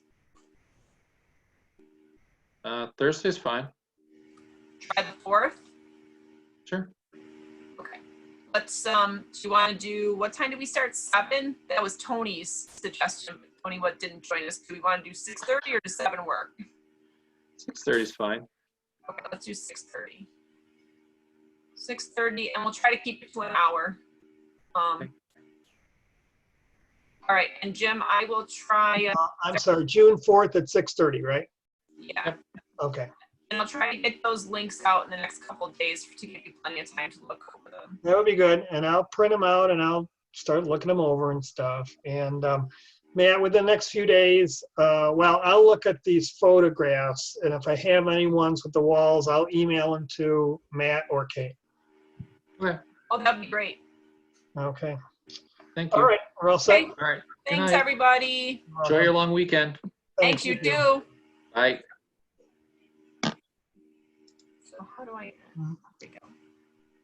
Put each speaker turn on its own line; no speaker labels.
Uh, Thursday's fine.
Try the fourth.
Sure.
Okay. Let's, um, do you want to do, what time do we start? Seven? That was Tony's suggestion. Tony, what didn't join us? Do we want to do six thirty or does seven work?
Six thirty's fine.
Okay, let's do six thirty. Six thirty, and we'll try to keep it to an hour.
Okay.
Um. All right, and Jim, I will try, uh,
Uh, I'm sorry, June 4th at 6:30, right?
yeah,
Yep.
Okay,
and I'll try to get those links out in the next couple of days to give you plenty of time to look over them.
that would be good. And I'll print them out and I'll start looking them over and stuff. And um, Matt, within the next few days, uh, well, I'll look at these photographs and if I have any ones with the walls, I'll email them to Matt or Kate.
Oh, that'd be great.
Okay,
Thank you.
all right, we're all set.
Okay,
All right.
Thanks,
night.
everybody.
Enjoy your long weekend.
Thanks, you too.
Bye.
So how do I?
Mhm.
there we go.